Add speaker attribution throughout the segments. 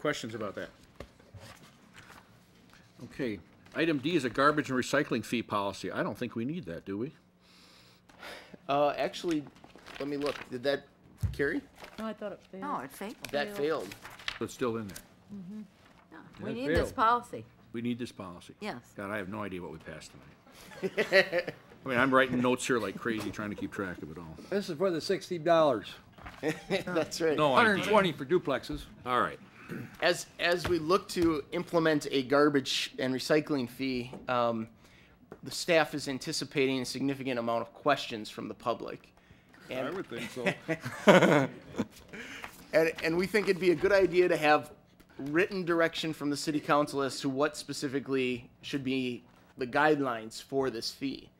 Speaker 1: Questions about that? Okay, item D is a garbage and recycling fee policy. I don't think we need that, do we?
Speaker 2: Uh, actually, let me look. Did that carry?
Speaker 3: No, Oh, I thought it failed.
Speaker 4: No, it failed.
Speaker 2: That failed.
Speaker 1: But it's still in there.
Speaker 4: No, We
Speaker 1: It
Speaker 4: need this
Speaker 1: failed.
Speaker 4: policy.
Speaker 1: We need this policy.
Speaker 4: Yes.
Speaker 1: God, I have no idea what we passed tonight. I mean, I'm writing notes here like crazy, trying to keep track of it all.
Speaker 5: This is for the sixty dollars,
Speaker 2: That's right.
Speaker 1: No
Speaker 5: hundred and
Speaker 1: idea.
Speaker 5: twenty for duplexes.
Speaker 1: All right.
Speaker 2: As as we look to implement a garbage and recycling fee, um, the staff is anticipating a significant amount of questions from the public. And,
Speaker 6: I would think so.
Speaker 2: And, and we think it'd be a good idea to have written direction from the city council as to what specifically should be the guidelines for this fee.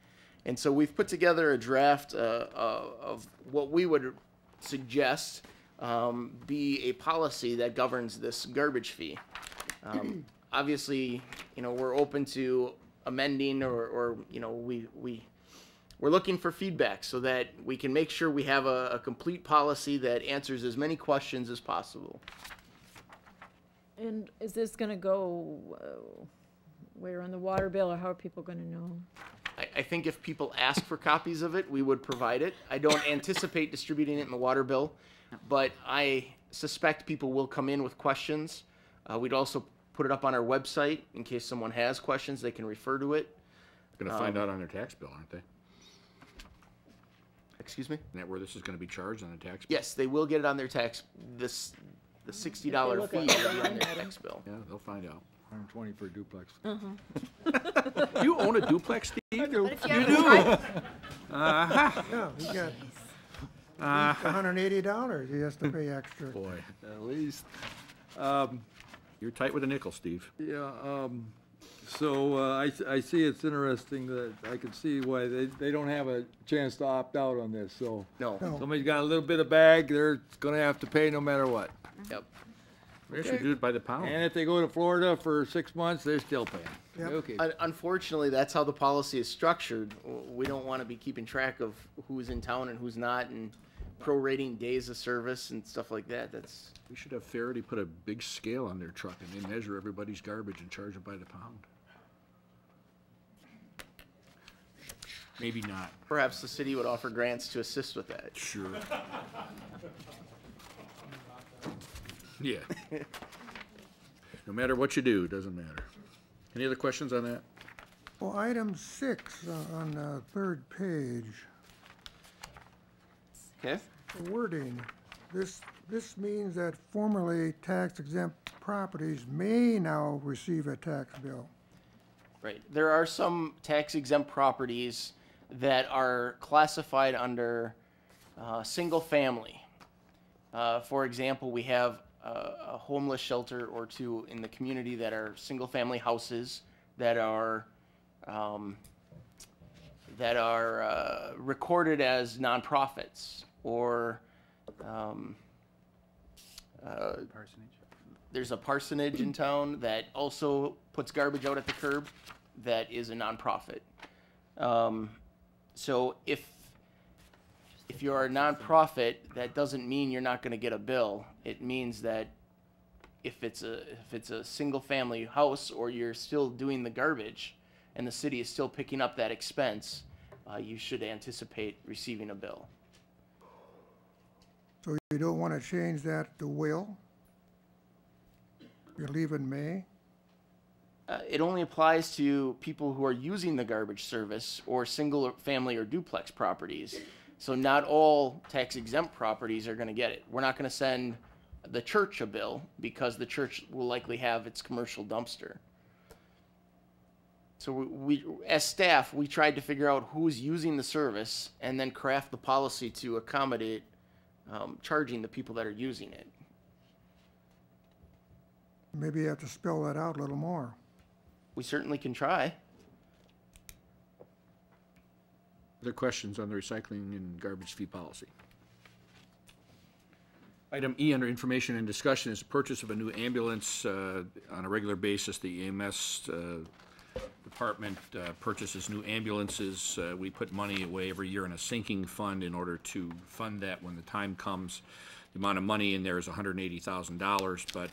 Speaker 2: And so we've put together a draft uh, uh, of what we would suggest um, be a policy that governs this garbage fee. Um, obviously, you know, we're open to amending or, or you know, we, we we're looking for feedback so that we can make sure we have a, a complete policy that answers as many questions as possible.
Speaker 3: And is this gonna go, uh, where on the water bill, or how are people gonna know?
Speaker 2: I, I think if people ask for copies of it, we would provide it. I don't anticipate distributing it in the water bill, but I suspect people will come in with questions. Uh, we'd also put it up on our website in case someone has questions, they can refer to it.
Speaker 1: Gonna find out on their tax bill, aren't they? Isn't
Speaker 2: Excuse me?
Speaker 1: that where this is gonna be charged on the tax? bill?
Speaker 2: Yes, they will get it on their tax, this, the sixty dollar
Speaker 3: look
Speaker 2: fee
Speaker 3: at
Speaker 2: will
Speaker 3: the
Speaker 2: be on
Speaker 3: line
Speaker 2: their
Speaker 3: item.
Speaker 2: tax bill.
Speaker 1: Yeah, they'll find out.
Speaker 5: Hundred and twenty for a duplex.
Speaker 1: Do you own a duplex, Steve? I do.
Speaker 4: But if you do.
Speaker 7: Yeah, he got hundred and eighty dollars he has to pay extra.
Speaker 1: Boy,
Speaker 5: At least.
Speaker 1: you're tight with a nickel, Steve.
Speaker 7: Yeah, um.
Speaker 5: So uh, I, s- I see it's interesting that I can see why they, they don't have a chance to opt out on this, so.
Speaker 2: No,
Speaker 7: No.
Speaker 5: Somebody's got a little bit of bag, they're gonna have to pay no matter what.
Speaker 2: yep.
Speaker 1: We should do it by the
Speaker 5: And
Speaker 1: pound.
Speaker 5: if they go to Florida for six months, they're still paying.
Speaker 7: Yep.
Speaker 5: Okay.
Speaker 2: Un- Unfortunately, that's how the policy is structured. W- We don't want to be keeping track of who's in town and who's not and prorating days of service and stuff like that. That's,
Speaker 1: We should have Faraday put a big scale on their truck and they measure everybody's garbage and charge it by the pound. Maybe not.
Speaker 2: perhaps the city would offer grants to assist with that.
Speaker 1: Sure. Yeah. No matter what you do, it doesn't matter. Any other questions on that?
Speaker 7: Well, item six uh, on the third page,
Speaker 2: Okay?
Speaker 7: the wording, this, this means that formerly tax exempt properties may now receive a tax bill.
Speaker 2: Right. There are some tax exempt properties that are classified under uh, single family. Uh, for example, we have uh, a homeless shelter or two in the community that are single family houses that are um, that are uh, recorded as nonprofits or um, there's a parsonage in town that also puts garbage out at the curb that is a nonprofit. Um, so if if you're a nonprofit, that doesn't mean you're not going to get a bill. It means that if it's a if it's a single family house or you're still doing the garbage and the city is still picking up that expense, uh, you should anticipate receiving a bill.
Speaker 7: So you don't want to change that to will? You're leaving may?
Speaker 2: Uh, it only applies to people who are using the garbage service or single or family or duplex properties. So not all tax exempt properties are going to get it. We're not going to send the church a bill because the church will likely have its commercial dumpster. So we, we as staff, we tried to figure out who's using the service and then craft the policy to accommodate um, charging the people that are using it.
Speaker 7: Maybe you have to spell that out a little more.
Speaker 2: We certainly can try.
Speaker 1: Other questions on the recycling and garbage fee policy? Item E under information and discussion is the purchase of a new ambulance uh, on a regular basis. The EMS uh, department uh, purchases new ambulances. Uh, We put money away every year in a sinking fund in order to fund that when the time comes. The amount of money in there is $180,000, but